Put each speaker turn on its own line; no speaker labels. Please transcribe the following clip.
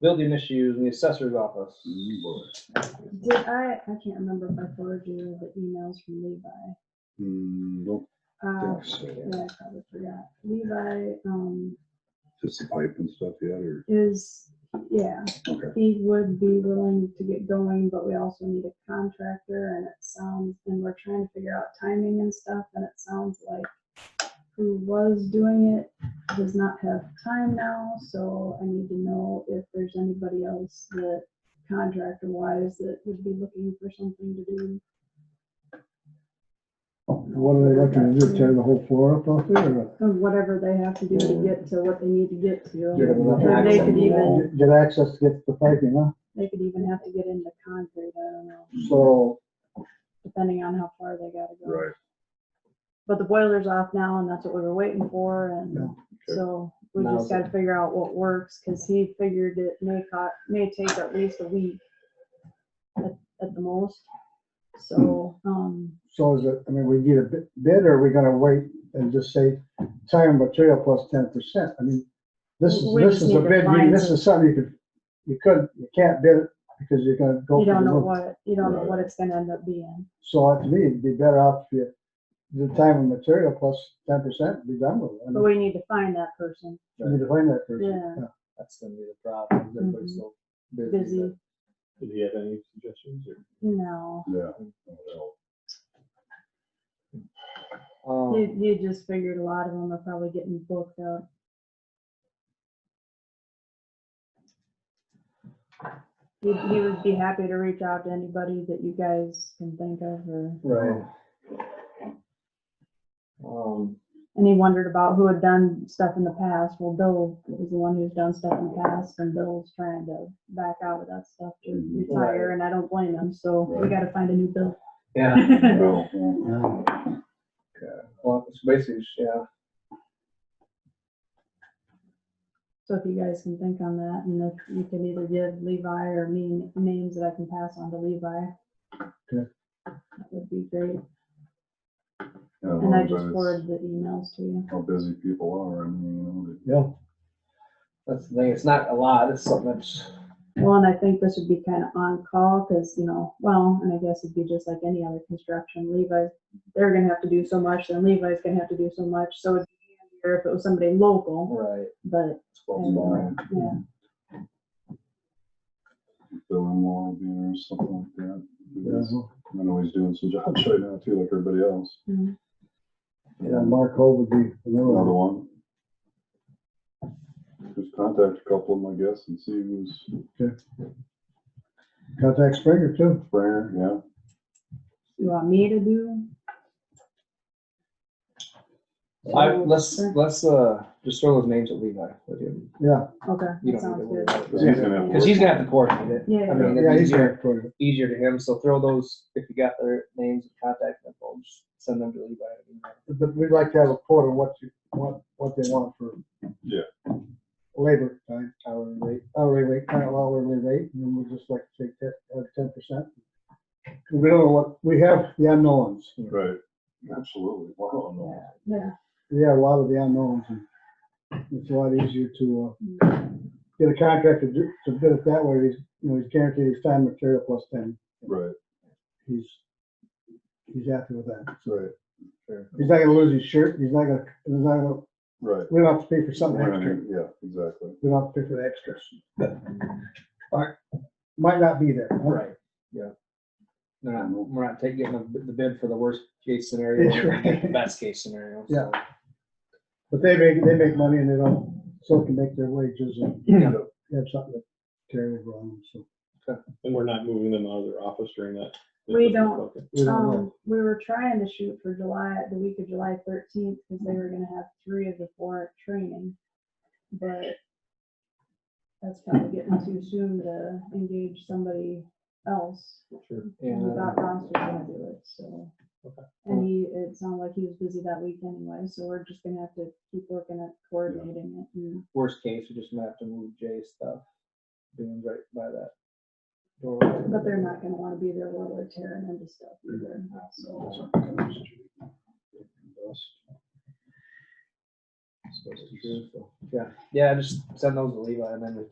building issues in the assessor's office.
Mm,
Did I, I can't remember if I forwarded you the emails from Levi.
Hmm, don't
Uh,
think so.
yeah, I probably forgot. Levi, um,
Just the pipe and stuff yet, or,
is, yeah,
okay,
he would be willing to get going, but we also need a contractor and it sounds, and we're trying to figure out timing and stuff, and it sounds like who was doing it does not have time now, so I need to know if there's anybody else that contractor wise that would be looking for something to do.
What are they looking to do, tear the whole floor up out there? or
Of whatever they have to do to get to what they need to get to.
Yeah.
Or they could even,
Get access to get the piping, huh?
they could even have to get into concrete, I don't know,
So,
depending on how far they gotta go.
right,
But the boiler's off now and that's what we were waiting for
Yeah,
and so we
Now's
just gotta figure out what works, cause he figured it may co may take at least a week at, at the most. So, um,
so is it, I mean, we need a bid, bid, or are we gonna wait and just say time and material plus ten percent? I mean, this is,
We
this
just
is a
need to
bid, you-
find
this is something you could, you could, you can't bid it because you're gonna go.
you
for
don't
the
know
roof.
what, you don't know
Right.
what it's gonna end up being.
So uh, to me, it'd be better off if you, the time and material plus ten percent, be done with it.
But
I mean,
we need to find that person.
you need to find that person.
Yeah.
That's gonna be the problem. is Everybody's
Mhm.
so
Busy.
busy. that- Did you have any suggestions or?
No,
yeah.
Um, Oh.
you, you just figured a lot of them are probably getting booked up. You, you would be happy to reach out to anybody that you guys can think of or,
Right. Um,
and he wondered about who had done stuff in the past. Well, Bill is the one who's done stuff in the past and Bill's trying to back out of that stuff to
Mhm.
retire and I don't blame him. So we
Right.
gotta find a new Bill.
yeah,
Well, well,
well, it's basically, yeah,
So if you guys can think on that, and if you can either give Levi or me names that I can pass on to Levi.
Okay.
That would be great,
yeah,
and I
but
just
it's
forwarded the emails to you.
How busy people are, I mean, you know, they-
Yeah.
that's the thing. It's not a lot. It's so much.
Well, and I think this would be kind of on call, because, you know, well, and I guess it'd be just like any other construction, Levi, they're gonna have to do so much, then Levi's gonna have to do so much, so it'd be easier if it was somebody local,
Right.
but,
it's close by.
yeah,
Bill-in-law will be there or something like that. Because
Yeah.
I know he's doing some jobs right now too, like everybody else.
Mhm.
Yeah, Mark Hope would be
Another
another one.
one. Just contact a couple of them, I guess, and see who's
Contact Springer too.
Springer, yeah.
you want me to do?
I, let's, let's, uh, just throw those names at Levi with you.
Yeah.
Okay,
You don't
sounds
need to
good.
worry about
Cause he's gonna
it.
have. to
Cause he's
work.
gonna have to coordinate it.
Yeah,
I
yeah.
mean,
Yeah,
it's
he's
easier,
got it.
easier to him. So throw those, if you got their names and contact info, just send them to Levi. and email.
But we'd like to have a quote on what you, what, what they want for.
Yeah.
Labor time,
Hourly rate.
hourly rate, kind of hourly rate, and then we'd just like to take that, uh, ten percent. We don't know what, we have the unknowns.
Right, absolutely. Wow, no.
Yeah.
Yeah, a lot of the unknowns. and It's a lot easier to,
Mm.
uh, get a contractor to, do- to bid it that way. He's, you know, he's guaranteed his time and material plus ten.
Right,
He's, he's happy with that.
right,
He's not gonna lose his shirt. He's not gonna, he's not gonna,
right.
we don't have to pay for something
We're not
extra.
gonna- Yeah, exactly.
We don't have to pay for the extras. Alright, might not be there. huh?
Right, yeah. They're not, we're not taking the the bid for the worst case scenario,
That's right.
the best case scenario.
Yeah.
so.
But they make, they make money and they don't, so can make their wages and
Yeah.
they have something to carry over on them, so.
And we're not moving them out of their office during that.
We don't.
Okay.
we don't know.
Um, we were trying to shoot for July, the week of July thirteenth, because they were gonna have three of the four at training. But that's probably getting too soon to engage somebody else. And we
And uh,
thought Ron's was gonna do it, so. And he, it sounded like he was busy that week anyway, so we're just gonna have to keep working at coordinating it. and-
worst case, we just might have to move Jay's stuff, doing right by that. door.
But they're not gonna wanna be there while they're tearing into stuff either, so.
Supposed to be, so, Yeah, yeah, just send those to Levi and then we